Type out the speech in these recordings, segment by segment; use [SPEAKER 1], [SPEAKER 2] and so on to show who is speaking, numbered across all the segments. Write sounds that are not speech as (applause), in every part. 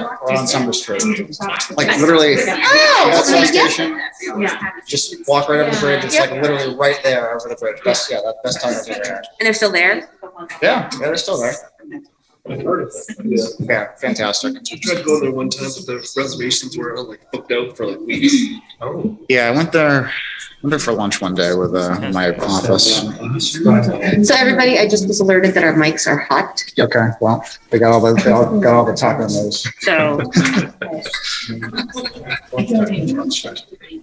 [SPEAKER 1] on Summer Street. Like literally,
[SPEAKER 2] Oh,
[SPEAKER 1] that
[SPEAKER 2] okay,
[SPEAKER 1] subway
[SPEAKER 2] yeah.
[SPEAKER 1] station, just walk right over the bridge. It's like literally right there over the bridge. Best, yeah, that best time I've ever had.
[SPEAKER 3] And they're still there?
[SPEAKER 1] Yeah, yeah, they're still there.
[SPEAKER 4] Yeah.
[SPEAKER 1] Yeah, fantastic.
[SPEAKER 4] I tried to go there one time, but the reservations were uh, like booked out for like weeks. Oh.
[SPEAKER 1] Yeah, I went there, went there for lunch one day with uh, my office.
[SPEAKER 4] Uh-huh.
[SPEAKER 3] So everybody, I just was alerted that our mics are hot,
[SPEAKER 1] Okay, well, they got all the, they all got all the tacos.
[SPEAKER 3] so.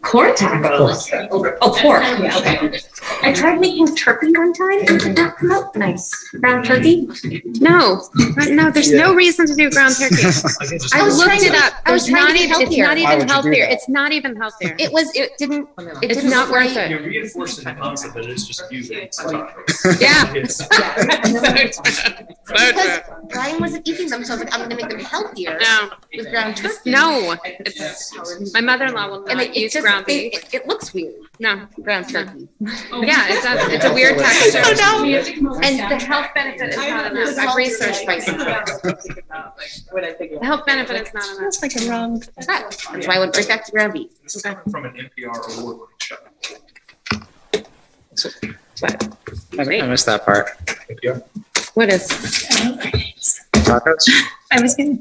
[SPEAKER 3] Corn tacos? Oh,
[SPEAKER 1] (laughs)
[SPEAKER 3] pork, okay. I tried making turkey one time and it did not come out nice. Brown turkey?
[SPEAKER 5] No, (laughs) no, there's no reason to
[SPEAKER 1] (laughs)
[SPEAKER 5] do ground turkey. I
[SPEAKER 3] was
[SPEAKER 5] looked
[SPEAKER 3] trying
[SPEAKER 5] it
[SPEAKER 3] to-
[SPEAKER 5] up.
[SPEAKER 3] I was
[SPEAKER 5] There's
[SPEAKER 3] trying to
[SPEAKER 5] not
[SPEAKER 3] be
[SPEAKER 5] even, it's
[SPEAKER 3] healthier.
[SPEAKER 5] not
[SPEAKER 1] Why would you
[SPEAKER 5] even
[SPEAKER 1] do
[SPEAKER 5] healthier.
[SPEAKER 1] that?
[SPEAKER 5] It's not even healthier. Oh,
[SPEAKER 3] It was, it didn't, it
[SPEAKER 5] It's
[SPEAKER 3] didn't.
[SPEAKER 5] not worth it.
[SPEAKER 6] You're reinforcing the concept that it's just you that it's not.
[SPEAKER 5] Yeah. (laughs)
[SPEAKER 6] It's-
[SPEAKER 3] Because Brian wasn't eating them, so I was like, I'm gonna make them healthier
[SPEAKER 5] No,
[SPEAKER 3] with ground turkey.
[SPEAKER 5] no. It's, my mother-in-law will
[SPEAKER 3] And
[SPEAKER 5] not
[SPEAKER 3] it, it
[SPEAKER 5] use
[SPEAKER 3] just,
[SPEAKER 5] ground
[SPEAKER 3] they-
[SPEAKER 5] beef. Uh-huh.
[SPEAKER 3] it, it looks weird,
[SPEAKER 5] No,
[SPEAKER 3] ground turkey.
[SPEAKER 5] yeah, it's a, it's a weird texture.
[SPEAKER 3] Oh,
[SPEAKER 5] no. And the health benefit is not enough. I've researched myself. The health benefit is not enough.
[SPEAKER 3] That's like a wrong. That's why I went right back to ground beef.
[SPEAKER 6] This is coming from an NPR award winning show.
[SPEAKER 1] I missed that part.
[SPEAKER 5] What is?
[SPEAKER 1] Tacos?
[SPEAKER 7] I was gonna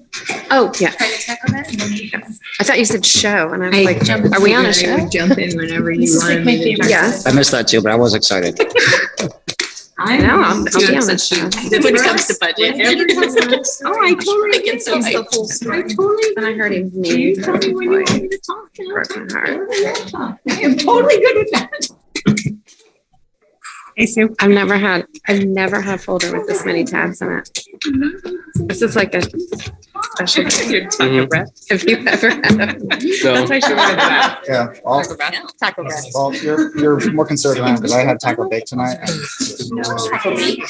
[SPEAKER 5] Oh, yeah.
[SPEAKER 7] try to check on that. and then you can-
[SPEAKER 5] I thought you said show and I was
[SPEAKER 8] I
[SPEAKER 5] like,
[SPEAKER 8] jump-
[SPEAKER 5] are we on a
[SPEAKER 8] I
[SPEAKER 5] show?
[SPEAKER 8] would Jump in whenever
[SPEAKER 7] This
[SPEAKER 8] you
[SPEAKER 7] is like
[SPEAKER 8] want.
[SPEAKER 7] my
[SPEAKER 8] me to
[SPEAKER 7] favorite.
[SPEAKER 8] talk.
[SPEAKER 5] Yes.
[SPEAKER 1] I missed that too, but I was excited.
[SPEAKER 8] I
[SPEAKER 5] No, I'll, I'll be on that show.
[SPEAKER 8] When it comes to
[SPEAKER 7] (laughs)
[SPEAKER 8] budget.
[SPEAKER 5] Oh, I totally get
[SPEAKER 8] so
[SPEAKER 5] I totally. And I heard his name. Broke my heart.
[SPEAKER 7] Hey, Sue.
[SPEAKER 5] I've never had, I've never had a folder with this many tabs in it. This is like a special. Have you ever had? a- That's why she wanted that.
[SPEAKER 1] (laughs) Yeah, all,
[SPEAKER 3] Taco breath.
[SPEAKER 1] well, you're, you're more conservative than I am because I had taco bake tonight. and-
[SPEAKER 3] Taco meat.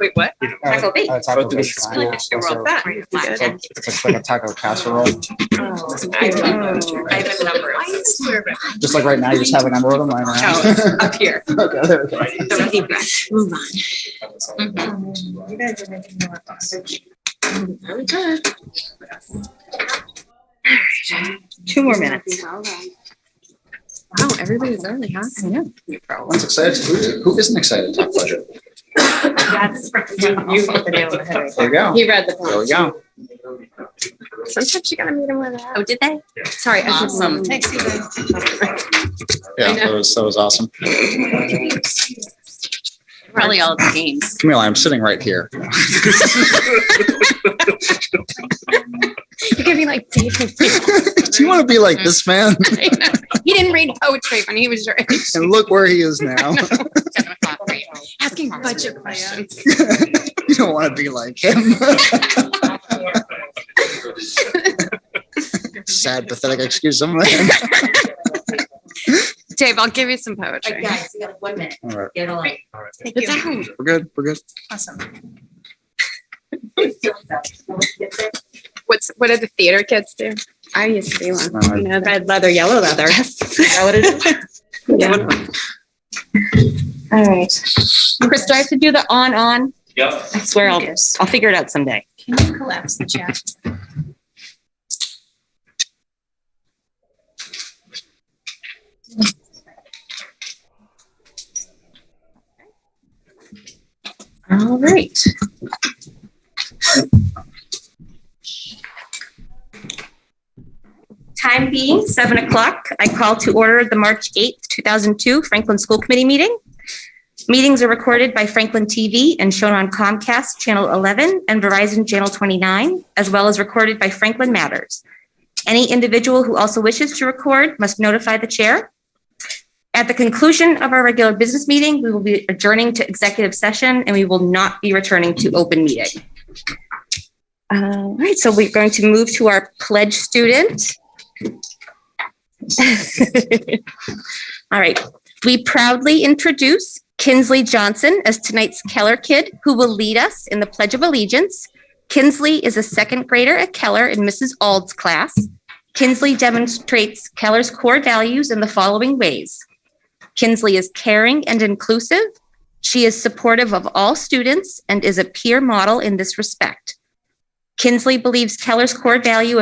[SPEAKER 8] Wait, what?
[SPEAKER 1] Uh,
[SPEAKER 3] Taco bake.
[SPEAKER 1] uh, Taco bake. tonight. So
[SPEAKER 5] That.
[SPEAKER 1] It's like it's like a taco casserole.
[SPEAKER 3] Oh.
[SPEAKER 8] I have a number.
[SPEAKER 1] Just like right now, you just have a number of them lying around.
[SPEAKER 8] Up here.
[SPEAKER 1] (laughs) Okay, there we go.
[SPEAKER 5] Deep breath. Move on.
[SPEAKER 7] You guys are making me laugh.
[SPEAKER 3] Two more minutes.
[SPEAKER 5] Wow, Oh, everybody's early, huh? I know.
[SPEAKER 1] Everyone's excited. Who- Who isn't excited to talk budget?
[SPEAKER 7] That's you hit the nail on the head.
[SPEAKER 1] There you go.
[SPEAKER 5] He read the
[SPEAKER 1] There
[SPEAKER 5] poem.
[SPEAKER 1] we go.
[SPEAKER 5] Sometimes you gotta meet him where they're
[SPEAKER 3] Oh,
[SPEAKER 5] at.
[SPEAKER 3] did they?
[SPEAKER 5] Sorry. I should-
[SPEAKER 3] Awesome.
[SPEAKER 7] Thanks, you guys.
[SPEAKER 1] Yeah, that was, that was awesome.
[SPEAKER 3] Probably all the games.
[SPEAKER 1] Camille, I'm sitting right here.
[SPEAKER 4] (laughs)
[SPEAKER 5] (laughs) You're gonna be like David.
[SPEAKER 1] (laughs) Do you want to be like this man?
[SPEAKER 5] (laughs) He didn't read poetry when he was your age.
[SPEAKER 1] And look where he is now. (laughs)
[SPEAKER 5] Asking budget questions.
[SPEAKER 1] You don't want to be like him. (laughs)
[SPEAKER 6] (laughs)
[SPEAKER 1] Sad, pathetic excuse. (laughs) I'm like-
[SPEAKER 5] Dave, I'll give you some poetry.
[SPEAKER 3] Guys, we got one minute.
[SPEAKER 1] All right,
[SPEAKER 3] Get along.
[SPEAKER 7] Thank
[SPEAKER 5] It's
[SPEAKER 7] you.
[SPEAKER 5] out.
[SPEAKER 1] we're good. We're good.
[SPEAKER 7] Awesome.
[SPEAKER 5] What's, what do the theater kids do? I used to be
[SPEAKER 1] Uh,
[SPEAKER 5] one. You know that.
[SPEAKER 8] Red leather, yellow leather.
[SPEAKER 5] Yeah.
[SPEAKER 3] All right. Chris, do I have to do the on, on?
[SPEAKER 6] Yep.
[SPEAKER 3] I swear I'll, I'll figure it out someday.
[SPEAKER 7] Can you collapse the chat?
[SPEAKER 3] All right. Time being seven o'clock, I call to order the March 8th, 2002 Franklin School Committee meeting. Meetings are recorded by Franklin TV and shown on Comcast Channel 11 and Verizon Channel 29, as well as recorded by Franklin Matters. Any individual who also wishes to record must notify the chair. At the conclusion of our regular business meeting, we will be adjourning to executive session and we will not be returning to open meeting. Uh, All right, so we're going to move to our pledge student. All right, we proudly introduce Kinsley Johnson as tonight's Keller kid who will lead us in the Pledge of Allegiance. Kinsley is a second grader at Keller in Mrs. Ald's class. Kinsley demonstrates Keller's core values in the following ways. Kinsley is caring and inclusive. She is supportive of all students and is a peer model in this respect. Kinsley believes Keller's core value of